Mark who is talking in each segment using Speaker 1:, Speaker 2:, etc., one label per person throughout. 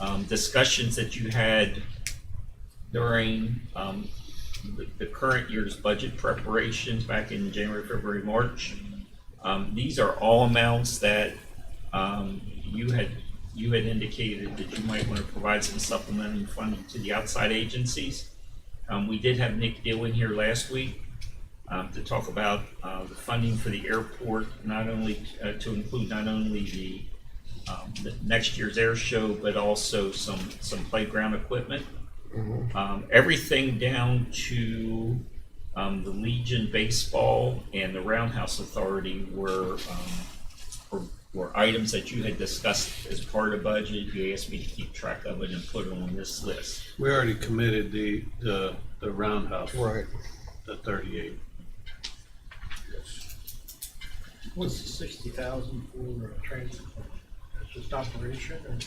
Speaker 1: um, discussions that you had during, um, the, the current year's budget preparations back in January, February, March. Um, these are all amounts that, um, you had, you had indicated that you might want to provide some supplementary funding to the outside agencies. Um, we did have Nick Deal in here last week, um, to talk about, uh, the funding for the airport, not only, uh, to include not only the, um, the next year's air show, but also some, some playground equipment. Um, everything down to, um, the Legion Baseball and the Roundhouse Authority were, um, were, were items that you had discussed as part of budget. You asked me to keep track of it and put it on this list.
Speaker 2: We already committed the, the, the roundhouse,
Speaker 3: Right.
Speaker 2: the thirty-eight.
Speaker 4: What's the sixty thousand for uh, transit? fund? That's just operation or?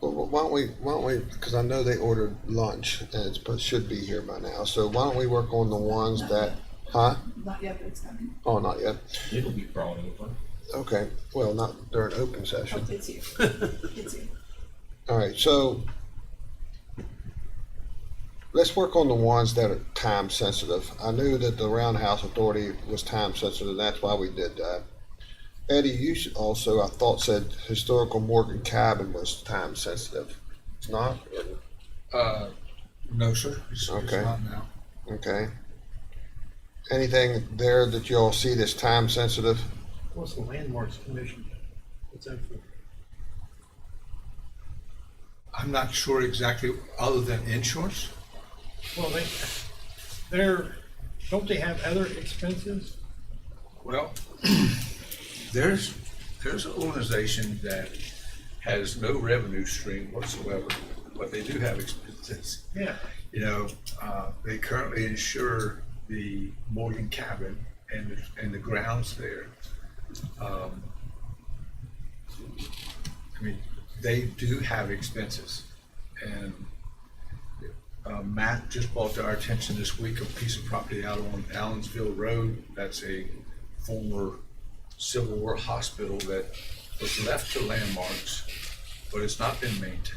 Speaker 3: Well, well, why don't we, why don't we, because I know they ordered lunch and it's, but should be here by now. So why don't we work on the ones that, huh?
Speaker 5: Not yet, but it's coming.
Speaker 3: Oh, not yet.
Speaker 1: It'll be brought over.
Speaker 3: Okay. Well, not during open
Speaker 5: Oh,
Speaker 3: session.
Speaker 5: it's you. It's you.
Speaker 3: All right. So let's work on the ones that are time sensitive. I knew that the Roundhouse Authority was time sensitive. That's why we did that. Eddie, you should also, I thought said historical Morgan Cabin was time sensitive. It's not? Or-
Speaker 6: Uh, no, sir. It's, it's
Speaker 3: Okay.
Speaker 6: not now.
Speaker 3: Okay. Anything there that y'all see that's time sensitive?
Speaker 4: What's the landmarks commission? What's that for?
Speaker 6: I'm not sure exactly, other than insurance.
Speaker 4: Well, they, they're, don't they have other expenses?
Speaker 6: Well, there's, there's an organization that has no revenue stream whatsoever, but they do have expenses.
Speaker 4: Yeah.
Speaker 6: You know, uh, they currently insure the Morgan cabin and, and the grounds there. Um, I mean, they do have expenses. And uh, Matt just brought to our attention this week a piece of property out on Allensville Road. That's a former Civil War hospital that was left to landmarks, but it's not been maintained.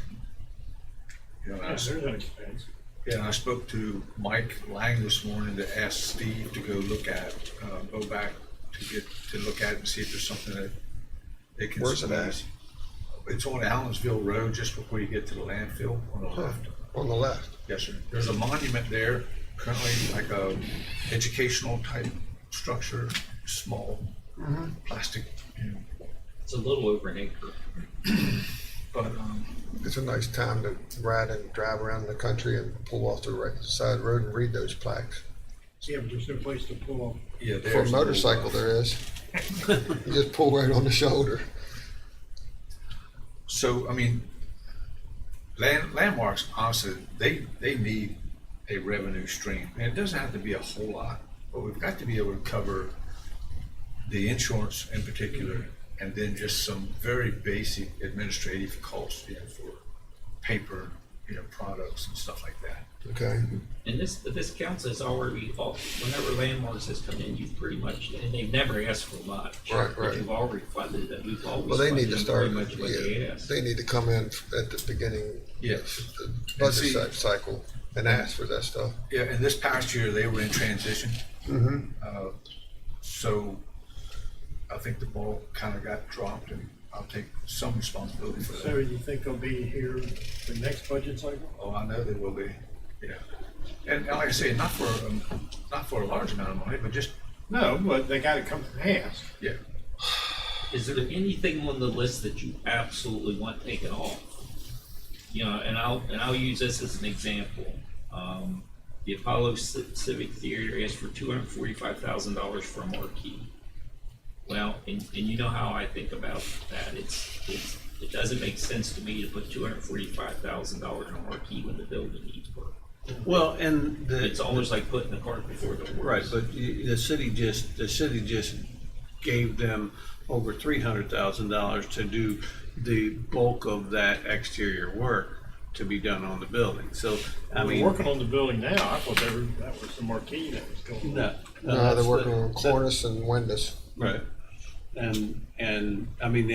Speaker 6: You know, and I
Speaker 4: Yes, there's an expense.
Speaker 6: yeah, and I spoke to Mike Lang this morning to ask Steve to go look at, uh, go back to get, to look at it and see if there's something that they can.
Speaker 3: Where's it at?
Speaker 6: squeeze. It's on Allensville Road, just before you get to the landfill on the left.
Speaker 3: On the left.
Speaker 6: Yes, sir. There's a monument there, currently like a educational type structure, small,
Speaker 3: Mm-hmm.
Speaker 6: plastic, you know,
Speaker 1: It's a little over an acre.
Speaker 6: but, um,
Speaker 3: It's a nice time to ride and drive around the country and pull off the right side road and read those plaques.
Speaker 4: Yeah, but there's no place to pull off.
Speaker 6: yeah, there's.
Speaker 3: For a
Speaker 6: little, uh,
Speaker 3: motorcycle, there is. You just pull right on the shoulder.
Speaker 6: So, I mean, land, landmarks, honestly, they, they need a revenue stream. And it doesn't have to be a whole lot, but we've got to be able to cover the insurance in particular, and then just some very basic administrative costs, you know, for paper, you know, products and stuff like that.
Speaker 3: Okay.
Speaker 1: And this, this council has already, al- whenever landmarks has come in, you've pretty much, and they've never asked for much.
Speaker 3: Right,
Speaker 1: But
Speaker 3: right.
Speaker 1: You've already funded it, we've always.
Speaker 3: Well, they need to
Speaker 1: funded
Speaker 3: start,
Speaker 1: Pretty much what they
Speaker 3: yeah,
Speaker 1: asked.
Speaker 3: they need to come in at the beginning
Speaker 6: Yes.
Speaker 3: of the
Speaker 6: And see-
Speaker 3: budget cy- cycle and ask for that stuff.
Speaker 6: Yeah, and this past year, they were in transition.
Speaker 3: Mhm.
Speaker 6: Uh, So I think the ball kind of got dropped, and I'll take some responsibility for
Speaker 4: So
Speaker 6: that.
Speaker 4: you think they'll be here the next budget cycle?
Speaker 6: Oh, I know they will be, yeah. And and like I say, not for, um, not for a large amount of money, but just,
Speaker 4: No, but they gotta come and ask.
Speaker 6: yeah.
Speaker 1: Is there anything on the list that you absolutely want taken off? You know, and I'll, and I'll use this as an example. Um, the Apollo Ci- Civic Theater asked for two hundred and forty-five thousand dollars for a marquee. Well, and, and you know how I think about that, it's, it's, it doesn't make sense to me to put two hundred and forty-five thousand dollars on a marquee when the building needs work.
Speaker 2: Well, and
Speaker 1: It's
Speaker 2: the,
Speaker 1: almost like putting the cart before the horse.
Speaker 2: right, but y- the city just, the city just gave them over three hundred thousand dollars to do the bulk of that exterior work to be done on the building, so, I
Speaker 4: We're
Speaker 2: mean.
Speaker 4: working on the building now. I thought that was, that was the marquee that was going on.
Speaker 2: No.
Speaker 3: No, they're
Speaker 2: that's
Speaker 3: working
Speaker 2: the-
Speaker 3: on
Speaker 2: that-
Speaker 3: cornice and windows.
Speaker 2: Right. And, and, I mean, the